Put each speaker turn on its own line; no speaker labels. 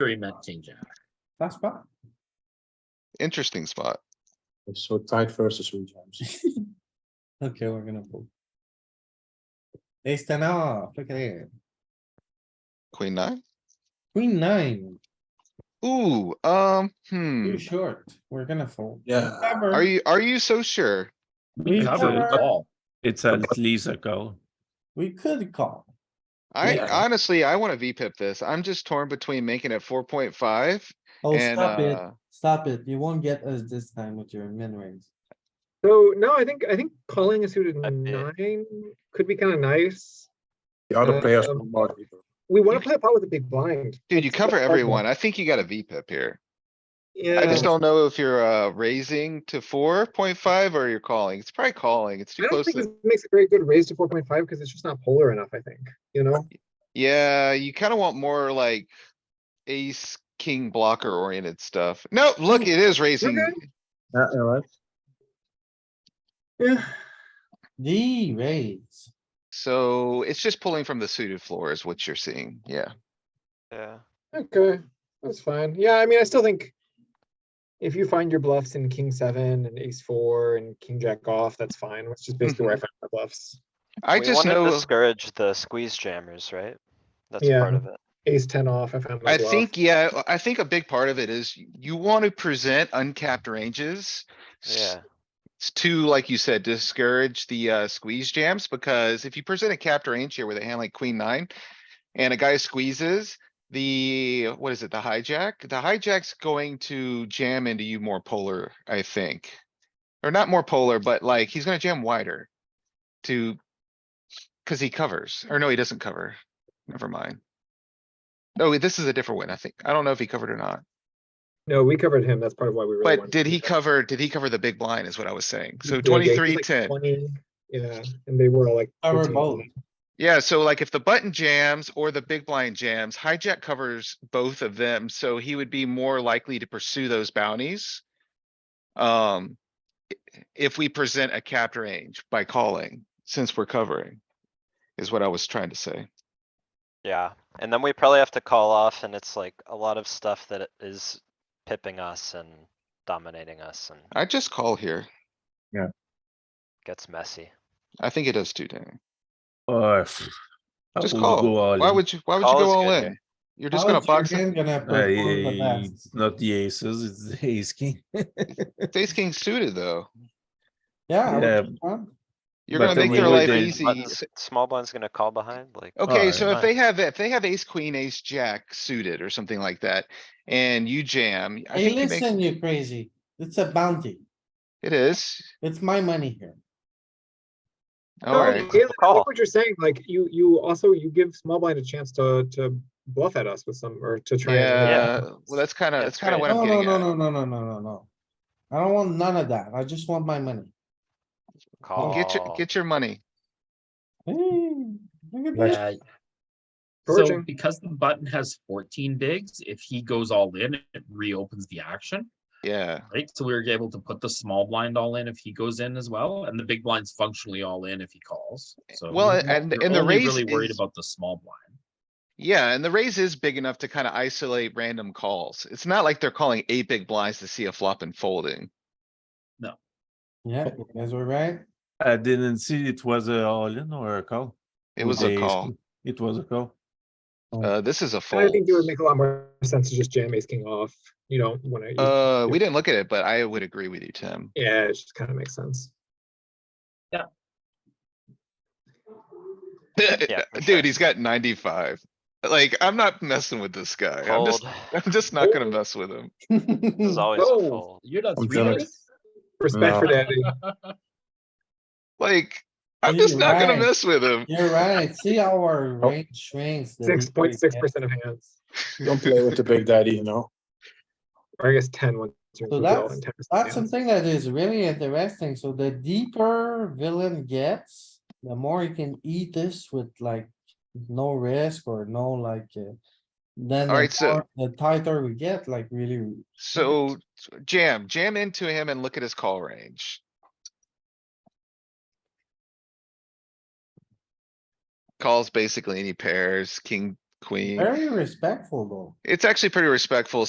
sure he meant king jack.
That's bad.
Interesting spot.
It's so tight versus regimes.
Okay, we're gonna pull. Ace ten off, look at it.
Queen nine?
Queen nine,
Ooh, um, hmm.
too short. We're gonna fold.
Yeah,
Are you, are you so sure?
We
It's a
cover,
good call.
It's at least a call.
we could call.
I
Yeah.
honestly, I wanna V pip this. I'm just torn between making it four point five
Oh,
and,
stop it,
uh,
stop it. You won't get us this time with your min range.
So no, I think I think calling a suited
I did.
nine could be kind of nice.
the other players
Um,
don't bother either.
We want to play a pot with a big blind.
dude, you
It's the
cover
problem.
everyone. I think you got a V pip here.
Yeah.
I just don't know if you're, uh, raising to four point five or you're calling. It's probably calling. It's too
I don't
close
think this
to.
makes a very good raise to four point five because it's just not polar enough. I think you know.
Yeah, you kinda want more like ace, king blocker oriented stuff. No, look, it is raising.
Okay.
Yeah, yeah, right.
Yeah.
D raise.
So it's just pulling from the suited floor is what you're seeing. Yeah.
Yeah,
Okay, that's fine. Yeah, I mean, I still think if you find your bluffs in king seven and ace four and king jack off, that's fine. That's just basically where
Mm-hmm.
I found my bluffs.
I
we
just
wanna
know,
discourage the squeeze jammers, right? That's
Yeah.
part of it.
Ace ten off, I found my
I
bluff.
think, yeah, I think a big part of it is y- you want to present uncapped ranges. s-
Yeah,
s- To, like you said, discourage the uh squeeze jams, because if you present a capped range here with a hand like queen nine. And a guy squeezes the, what is it, the hijack? The hijack's going to jam into you more polar, I think. Or not more polar, but like he's gonna jam wider. To. Cause he covers, or no, he doesn't cover. Never mind. No, wait, this is a different one, I think. I don't know if he covered or not,
No, we covered him. That's part of why we really.
but
wanted
did
to
he
cover-
cover, did he cover the big blind is what I was saying. So
Yeah, yeah, he was
twenty-three,
like
ten.
20, Yeah, and they were all like.
Cover
13.
both.
Yeah, so like if the button jams or the big blind jams, hijack covers both of them, so he would be more likely to pursue those bounties. Um, i- if we present a capped range by calling, since we're covering, is what I was trying to say.
yeah. And then we probably have to call off and it's like a lot of stuff that is pipping us and dominating us and
I just call here.
gets messy.
I think it does too, Danny.
Uh, pff, I
Just
would
call.
go all
Why
in.
would you, why would you
Call
go
is
all
good
in?
here.
You're just
How
gonna
is your
box it.
game Gonna
I, eh,
perform the best?
it's not the aces, it's the ace king.
It's Ace king suited, though.
Yeah. I would
Yeah.
think so.
You're
But
gonna
then
make
we
their
would
life
then
easy.
Buttons- Small blind's gonna call behind, like.
Okay,
Alright.
so if
fine.
they have, if they have ace, queen, ace, jack suited or something like that, and you jam, I
Hey,
think you make,
listen, you crazy. It's a bounty.
it is.
It's my money here.
No,
Alright,
Galen, I
Call.
think what you're saying, like you, you also, you give small blind a chance to, to bluff at us with some, or to try. and-
yeah, well, that's kinda, that's
That's
kinda
right.
what
No,
I'm
no,
getting
no,
at.
no, no, no, no, no, no. I don't want none of that. I just want my money.
Well, Get your,
Oh.
Call.
get your money.
Hey, look at that.
Yeah. So
Gorging.
because the button has fourteen bigs, if he goes all in, it reopens the action,
Yeah,
right? So we were able to put the small blind all in if he goes in as well, and the big blind's functionally all in if he calls, so.
Well,
we're
and-
not-
and
we're
the
only
raise
Really worried
is-
about the small blind.
yeah, and the raise is big enough to kinda isolate random calls. It's not like they're calling eight big blinds to see a flop and folding.
Yeah, you guys were right.
I didn't see it was a all in or a call.
It
with
was a
the ace
call.
king. It was a call.
Uh, this is a
And I
fold.
think it would make a lot more sense to just jam ace king off. You don't wanna, you-
Uh, we didn't look at it, but I would agree with you, Tim.
yeah, it just kinda makes sense.
for sure.
Dude, he's got ninety-five. Like, I'm not messing with this guy. I'm just
Fold
I'm just not gonna
Oh.
mess with him.
is always a
Oh,
fold.
You're not
I'm
three
jealous.
betting?
Respect for
No.
daddy.
Like, I'm just
You're
not gonna
right.
mess with him.
You're right. See our range shrinks. that we
Six point six
get.
percent of hands,
Don't play with the big daddy, you know?
or I guess ten once. you're
So
in control and 10% of
That's
hands.
something that is really interesting. So the deeper villain gets, the more he can eat this with like no risk or no like. uh, Then the
Alright, so-
more- the tighter we get, like really,
So jam, jam into him and look at his call range. Calls basically any pairs, king, queen.
Very respectful though.
It's actually pretty respectful,